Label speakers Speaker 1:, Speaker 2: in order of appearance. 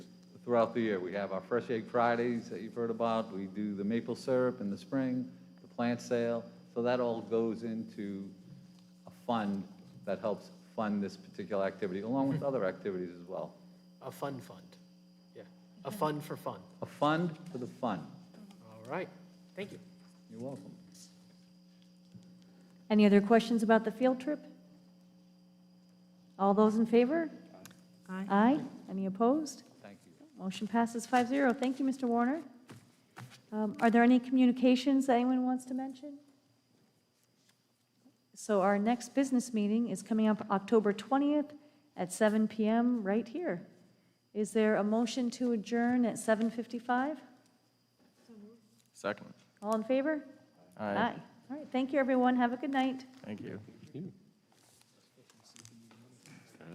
Speaker 1: throughout the year. We have our Fresh Egg Fridays that you've heard about, we do the maple syrup in the spring, the plant sale, so that all goes into a fund that helps fund this particular activity, along with other activities as well.
Speaker 2: A fun fund. Yeah, a fund for fun.
Speaker 1: A fund for the fun.
Speaker 2: All right, thank you.
Speaker 1: You're welcome.
Speaker 3: Any other questions about the field trip? All those in favor? Aye. Aye. Any opposed?
Speaker 1: Thank you.
Speaker 3: Motion passes 5-0. Thank you, Mr. Warner. Um, Are there any communications that anyone wants to mention? So our next business meeting is coming up October 20th at 7 PM right here. Is there a motion to adjourn at 7:55?
Speaker 4: Second.
Speaker 3: All in favor? All right, thank you, everyone. Have a good night.
Speaker 4: Thank you.